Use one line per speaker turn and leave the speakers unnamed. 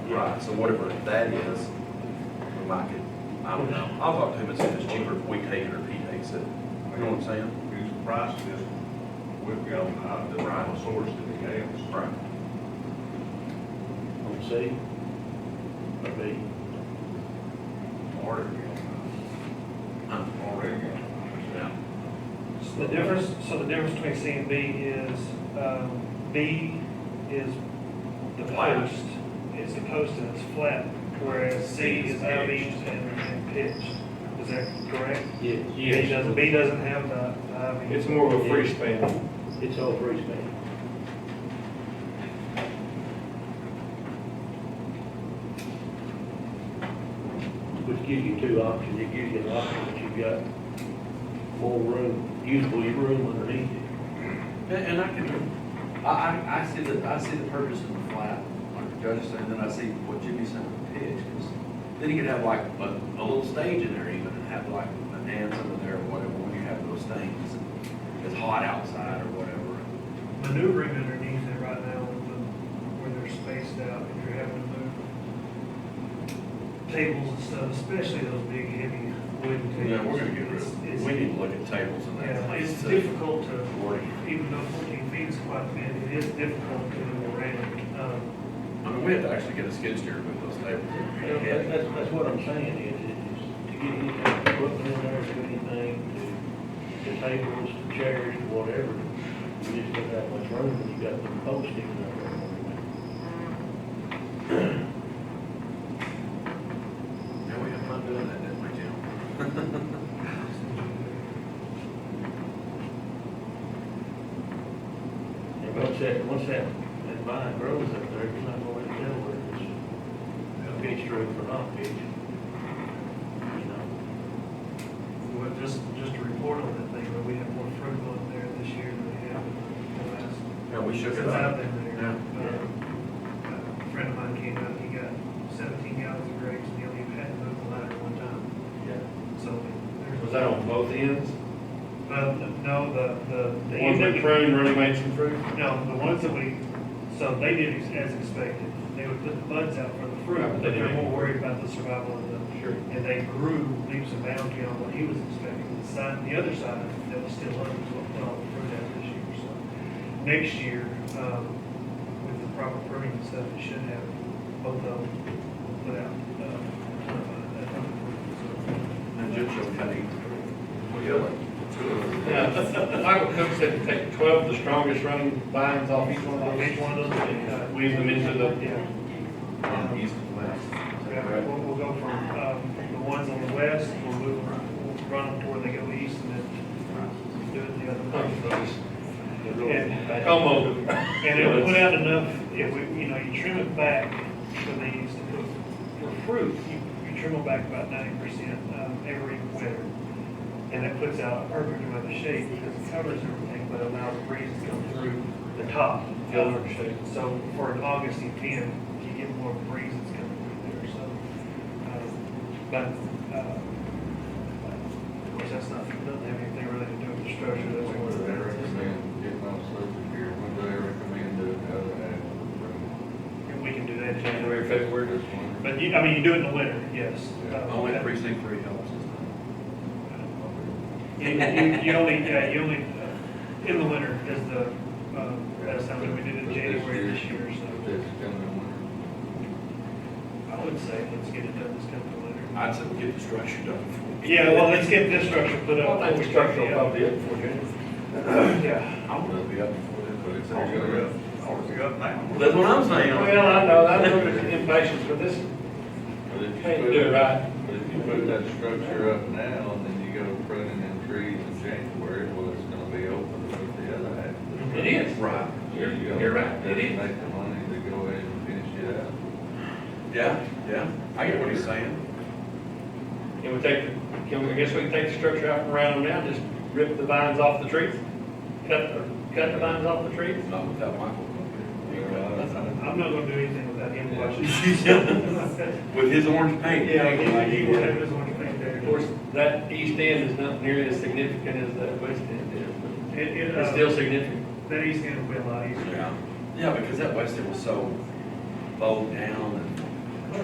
Right, so whatever that is, we might get, I don't know, I'll talk to him and see if it's cheaper if we take it or he takes it, you know what I'm saying?
His price is, we've got out of the rival source to the else.
Right.
on C, or B,
Already.
Huh.
Already.
Yeah.
So The difference, so the difference between C and B is, um, B is the
Flat.
post, it's a post and it's flat, whereas C is outings and and pitched. Is that correct?
yes.
B doesn't, B doesn't have the, the outings.
It's more of a free span.
It's all free space. Which gives you two options, it gives you an option that you've got more room, usable room underneath it.
And, and I can, I, I, I see the, I see the purpose of the flat, like Judge is saying, then I see what Jimmy's saying with the pitch, 'cause then you could have like a, a little stage in there even, and have like a dance over there or whatever, when you have those things, and it's hot outside or whatever.
Maneuvering underneath it right now, with the- where they're spaced out, if you're having to move tables and stuff, especially those big heavy wooden tables.
Yeah, we're gonna get rid of,
It's-
we need to look at tables and that.
Yeah, it's difficult to, even though fourteen feet is quite thin, it is difficult to move around. Um,
I mean, we have to actually get a skid steer with those tables.
You know, that- That's, that's what I'm saying is, is to get any kind of equipment in there, to anything, to, to tables, to chairs, to whatever. You just don't have much room when you got the posting up there. and everything.
Yeah, we had fun doing that, didn't we, Jim?
And once that, once that, that vine grows up there, you're not gonna really tell whether it's pitched roof or not pitched. You know,
well, just, just to report on that thing, but we have more fruit on there this year than we have in the last.
Yeah, we shook it
Since I've
up.
been there.
Yeah.
Um, A friend of mine came out, he got seventeen gallons of grapes, and he only had to move the ladder one time,
yeah.
so. there's-
Was that on both ends?
Uh, no, the, the. the
One
end that we-
big prune really made some fruit?
No, the ones that we, so they did ex- as expected. They would put the buds out for the fruit, but they were more worried about the survival of the.
Sure.
And they grew leaves and bounds beyond what he was expecting. The side, the other side that was still up is what put all the fruit out this year, so. Next year, um, with the proper pruning and stuff, it should have both of them put out. uh, uh, that-
And Jim showed Kenny.
Yeah, Michael Cook said to take twelve of the strongest running vines off each one of those.
Each one of those, uh,
Weave them into the,
Yeah.
Um, east and west.
Yeah, We'll, we'll go from, um, the ones on the west, we'll move, them- we'll run them to where they go east and then do it the other way.
Yeah.
como.
And it will put out enough, if we, you know, you trim it back for these, for fruit, you, you trim them back about ninety percent, um, every winter. And that puts out a perfect amount of shade because it covers everything, but allows breeze to come through the top.
Filter shade.
So for an August event, you get more breeze that's coming through there, so. um, But, uh, of course, that's not, doesn't have anything really to do with the structure, that's more of the.
They recommend getting on social here, when do they recommend doing other
And we can do that in
January, February.
than this one?
But you, I mean, you do it in the winter, yes.
Yeah.
Uh,
Only
that-
precinct three helps.
You, you you only, yeah, you only, uh, in the winter is the, um, that's something we did in
But
January this year, so
This coming winter.
I would say let's get it done this coming winter.
I'd say we get the structure done.
Yeah, well, let's get this structure put up.
I think the structure will probably be it for you.
Yeah.
I'm gonna be up before then, but it's.
Already up.
Already up now. That's what I'm saying.
Well, I know, I'm a little bit impatient for this,
But if you
can't
put-
do it right.
But if you put that structure up now, and then you go pruning them trees in January, well, it's gonna be open with the other half.
It is.
Right.
There you go.
You're right, it is.
Make the money to go ahead and finish it out.
Yeah, yeah. I get what he's saying.
Can we take, the- can we, I guess we can take the structure out from around now, just rip the vines off the trees? Cut, the- cut the vines off the trees?
Not without Michael.
I'm not gonna do anything without him watching.
With his orange paint.
Yeah, he, he would have his own thing there.
Of course, that east end is not nearly as significant as that west end is,
It,
but
it,
it's still
uh,
significant.
that east end will be a lot easier.
Yeah, yeah, because that west end was so bowed down